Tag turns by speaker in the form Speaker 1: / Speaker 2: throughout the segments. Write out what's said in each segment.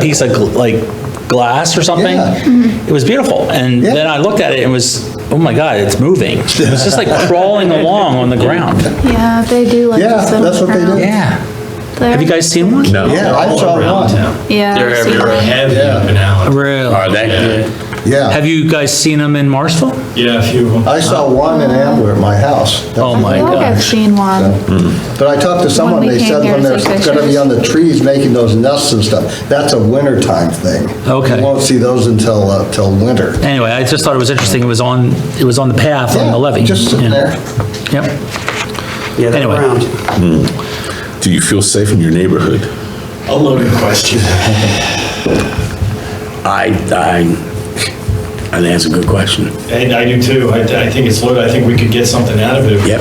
Speaker 1: piece of gl- like glass or something.
Speaker 2: Yeah.
Speaker 1: It was beautiful. And
Speaker 2: Yeah.
Speaker 1: then I looked at it and was, oh my God, it's moving. It was just like crawling along on the ground.
Speaker 3: Yeah, they do like.
Speaker 2: Yeah,
Speaker 3: to sit on
Speaker 2: that's
Speaker 3: the
Speaker 2: what they do.
Speaker 3: ground
Speaker 1: Yeah.
Speaker 3: there.
Speaker 1: Have you guys seen one? Oh
Speaker 4: No.
Speaker 2: Yeah, I saw one.
Speaker 3: Yeah.
Speaker 5: They're
Speaker 3: I've seen
Speaker 5: everywhere,
Speaker 3: them.
Speaker 5: heavy up in Allen.
Speaker 1: Really?
Speaker 4: Are they?
Speaker 2: Yeah,
Speaker 1: Have you guys seen them in Marsville?
Speaker 5: Yeah, a few of them.
Speaker 2: I saw one in Ambler at my house.
Speaker 1: Oh my
Speaker 3: I feel like I've
Speaker 1: gosh.
Speaker 3: seen one.
Speaker 2: But I talked to someone,
Speaker 3: we
Speaker 2: they
Speaker 3: came
Speaker 2: said
Speaker 3: here
Speaker 2: when
Speaker 3: to
Speaker 2: they're
Speaker 3: take
Speaker 2: gonna be
Speaker 3: pictures.
Speaker 2: on the trees making those nests and stuff, that's a wintertime thing.
Speaker 1: Okay.
Speaker 2: You won't see those until, uh, till winter.
Speaker 1: Anyway, I just thought it was interesting. It was on, it was on the path on
Speaker 2: Yeah,
Speaker 1: the levee.
Speaker 2: Just sitting
Speaker 1: Yeah.
Speaker 2: there.
Speaker 1: Yep.
Speaker 6: Yeah, they're
Speaker 1: Anyway.
Speaker 6: round.
Speaker 4: Do you feel safe in your neighborhood?
Speaker 5: A loaded question.
Speaker 6: I, I, I think that's a good question.
Speaker 5: And I do too. I, I think it's loaded. I think we could get something out of it.
Speaker 6: Yep.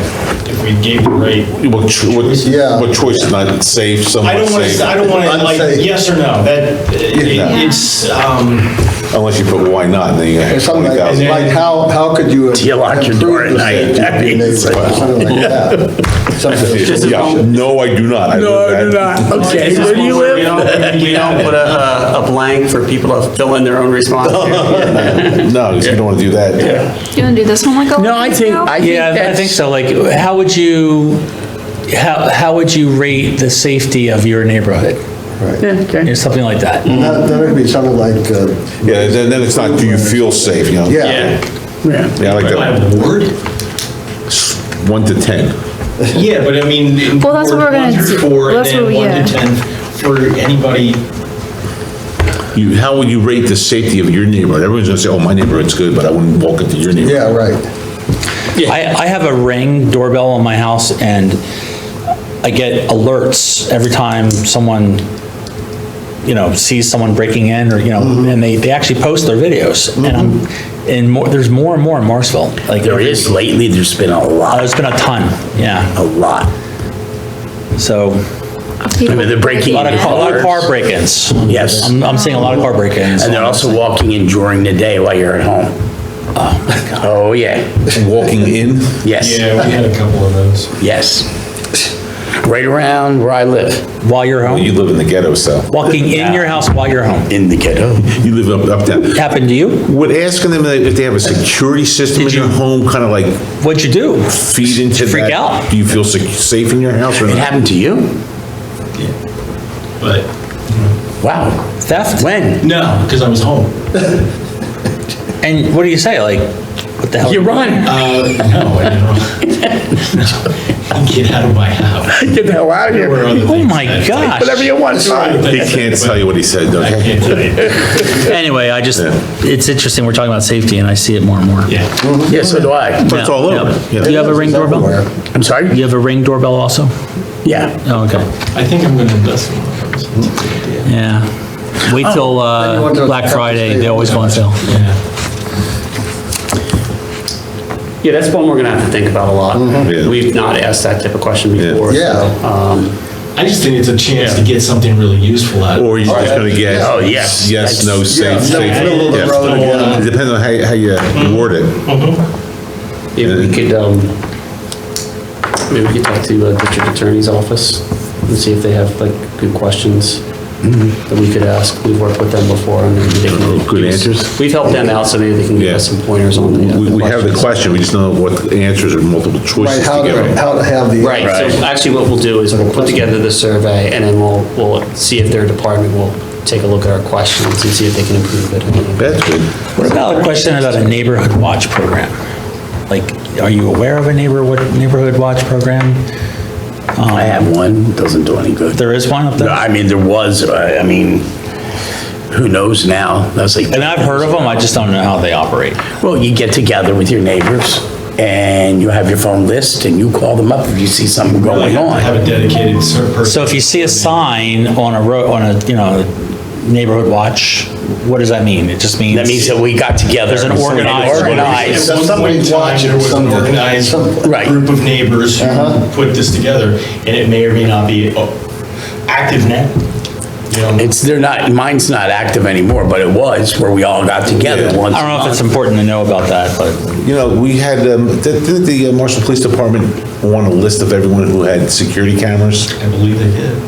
Speaker 5: If we gave the rate.
Speaker 4: What, cho- what,
Speaker 2: Yeah.
Speaker 4: what choice is not safe,
Speaker 5: I
Speaker 4: somewhat
Speaker 5: don't want
Speaker 4: safe?
Speaker 5: to, I don't want to, like,
Speaker 2: Unsafe.
Speaker 5: yes or no, that, it-
Speaker 4: Yeah.
Speaker 5: it's, um,
Speaker 4: Unless you put why not, and then you
Speaker 2: Or
Speaker 4: have
Speaker 2: something like,
Speaker 4: 20,000.
Speaker 2: like how, how could you?
Speaker 6: Do you lock your door
Speaker 2: improve
Speaker 6: at
Speaker 2: the
Speaker 6: night?
Speaker 2: safety
Speaker 6: That'd
Speaker 2: of your
Speaker 6: be
Speaker 2: neighborhood?
Speaker 6: insane.
Speaker 2: Something like that. Something-
Speaker 4: Yeah, no, I do not. No, I do not.
Speaker 6: Okay, where do you
Speaker 5: We
Speaker 6: live?
Speaker 5: don't-
Speaker 6: We don't put a, a blank for people to fill in their own response.
Speaker 4: No, 'cause you don't want to do that.
Speaker 3: You wanna do this one like a?
Speaker 1: No, I
Speaker 3: little
Speaker 1: think,
Speaker 3: girl?
Speaker 1: yeah, I think so. Like, how would you, how, how would you rate the safety of your neighborhood?
Speaker 2: Right.
Speaker 1: Or something like that.
Speaker 2: That, that would be something like, uh,
Speaker 4: Yeah, then, then it's not, do you feel safe, you know?
Speaker 2: yeah,
Speaker 5: yeah.
Speaker 4: Yeah, I like
Speaker 5: Do I
Speaker 4: that.
Speaker 5: have a word?
Speaker 4: One to 10.
Speaker 5: Yeah, but I mean. in
Speaker 3: Well, that's what
Speaker 5: Word
Speaker 3: we're
Speaker 5: one
Speaker 3: gonna
Speaker 5: through
Speaker 3: do.
Speaker 5: Four, and
Speaker 3: That's
Speaker 5: then
Speaker 3: what we-
Speaker 5: one to
Speaker 3: yeah.
Speaker 5: 10 for anybody.
Speaker 4: You, how would you rate the safety of your neighborhood? Everyone's gonna say, oh, my neighborhood's good, but I wouldn't walk into your neighborhood.
Speaker 2: yeah, right.
Speaker 1: I, I have a ring doorbell on my house and I get alerts every time someone, you know, sees someone breaking in or, you know,
Speaker 6: Mm-hmm.
Speaker 1: and they, they actually post their videos. And I'm, and more, there's more and more in Morrisville. Like,
Speaker 6: There
Speaker 1: every-
Speaker 6: is lately, there's been a
Speaker 1: uh,
Speaker 6: lot,
Speaker 1: There's been a ton, yeah.
Speaker 6: a lot.
Speaker 1: So,
Speaker 3: People-
Speaker 6: I mean, they're
Speaker 1: a
Speaker 6: breaking
Speaker 1: lot of,
Speaker 6: in.
Speaker 1: a lot of car break-ins.
Speaker 6: Yes.
Speaker 1: I'm, I'm seeing a lot of car break-ins.
Speaker 6: And they're also walking in during the day while you're at home. Oh, my God. Oh, yeah.
Speaker 4: Walking in?
Speaker 6: Yes,
Speaker 5: Yeah, we had a couple of those.
Speaker 6: yes. Right around where I live,
Speaker 1: While you're
Speaker 4: Well, you
Speaker 1: home,
Speaker 4: live in the ghetto, so.
Speaker 1: walking in your house while you're home.
Speaker 6: in the ghetto.
Speaker 4: You live up, uptown.
Speaker 1: Happened to you?
Speaker 4: Would asking them if they have a security system in
Speaker 1: Did
Speaker 4: your
Speaker 1: you-
Speaker 4: home kind of like
Speaker 1: What'd you do?
Speaker 4: feed into that?
Speaker 1: freak out?
Speaker 4: Do you feel sec- safe in your house or
Speaker 6: It
Speaker 4: not?
Speaker 6: happened to you?
Speaker 5: But,
Speaker 6: Wow.
Speaker 1: Theft?
Speaker 6: When?
Speaker 5: no, because I was home.
Speaker 1: And what do you say? Like, what the hell?
Speaker 6: You run.
Speaker 5: Uh, no, I don't. No. Get out of my house.
Speaker 6: Get the hell out of
Speaker 5: There were
Speaker 6: here.
Speaker 5: other
Speaker 1: Oh
Speaker 5: things
Speaker 1: my
Speaker 5: that-
Speaker 1: gosh.
Speaker 6: Whatever you want,
Speaker 5: Other
Speaker 6: son.
Speaker 4: He
Speaker 5: things
Speaker 4: can't
Speaker 5: that-
Speaker 4: tell you what he said,
Speaker 5: I
Speaker 4: okay?
Speaker 5: can't tell you.
Speaker 1: Anyway, I just, it's interesting, we're talking about safety, and I see it more and more.
Speaker 5: Yeah.
Speaker 6: Yeah, so do I.
Speaker 4: But it's all over.
Speaker 1: Do you
Speaker 4: yeah.
Speaker 1: have a ring
Speaker 2: It's
Speaker 1: doorbell?
Speaker 2: everywhere.
Speaker 1: Do
Speaker 6: I'm sorry?
Speaker 1: you have a ring doorbell also?
Speaker 6: Yeah.
Speaker 1: Oh, okay.
Speaker 5: I think I'm gonna invest in one of those. That's a good idea.
Speaker 1: Yeah. Wait till
Speaker 2: Then you
Speaker 1: uh,
Speaker 2: want to-
Speaker 1: Black Friday, they always go on sale.
Speaker 5: Yeah.
Speaker 6: Yeah, that's one we're gonna have to think about a lot.
Speaker 4: Yeah.
Speaker 6: We've not asked that type of question
Speaker 4: Yeah.
Speaker 6: before. so,
Speaker 2: Yeah.
Speaker 6: um,
Speaker 5: I just think it's a chance to get something really useful out of it.
Speaker 4: Or you're just gonna get?
Speaker 6: Oh, yes.
Speaker 4: Yes, no,
Speaker 2: Yeah,
Speaker 4: safe,
Speaker 2: no,
Speaker 4: safe.
Speaker 2: middle of the
Speaker 4: yeah.
Speaker 2: road,
Speaker 5: yeah.
Speaker 4: It depends on how, how you word it.
Speaker 6: If we could, um, maybe we could talk to uh, district attorney's office and see if they have like good questions that we could ask. We've worked with them before and maybe they can.
Speaker 4: Mm-hmm. Good
Speaker 6: give us-
Speaker 4: answers?
Speaker 6: We've helped them out, so maybe they can give us
Speaker 4: Yeah.
Speaker 6: some pointers on the. uh,
Speaker 4: We, we have the
Speaker 6: questions.
Speaker 4: question, we just don't know what the answers or multiple
Speaker 2: Right,
Speaker 4: choices
Speaker 2: how,
Speaker 4: to give
Speaker 2: to-
Speaker 4: them.
Speaker 2: how to have the.
Speaker 6: Right, so actually what we'll do is we'll put together the survey and then we'll, we'll see if their department will take a look at our questions and see if they can improve it.
Speaker 4: That's good.
Speaker 1: What about a question about a neighborhood watch program? Like, are you aware of a neighborhood, neighborhood watch program?
Speaker 6: I have one, doesn't do any good.
Speaker 1: There is one up there?
Speaker 6: I mean, there was, I I mean, who knows now? That's like.
Speaker 1: And I've heard of them, I just don't know how they operate.
Speaker 6: Well, you get together with your neighbors and you have your phone list and you call them up if you see something
Speaker 5: I
Speaker 6: going
Speaker 5: have to have
Speaker 6: on.
Speaker 5: a dedicated cert person.
Speaker 1: So if you see a sign on a road, on a, you know, neighborhood watch, what does that mean? It just means.
Speaker 6: That means that we got together.
Speaker 1: There's an
Speaker 6: and
Speaker 1: organized-
Speaker 6: organized-
Speaker 5: At one point in
Speaker 2: Somebody's
Speaker 5: time,
Speaker 2: watching
Speaker 5: there was an
Speaker 2: something.
Speaker 5: organized
Speaker 6: Right.
Speaker 5: group of neighbors who put this together, and it may or may not be uh, active now. You know,
Speaker 6: It's, they're not, mine's not active anymore, but it was where we all got together
Speaker 4: Yeah.
Speaker 6: once.
Speaker 1: I don't know if it's important to know about that, but
Speaker 4: You know, we had, um, did did the uh, Marshall Police Department want a list of everyone who had security cameras?
Speaker 5: I believe they did.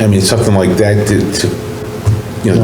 Speaker 4: I mean, something like that to, to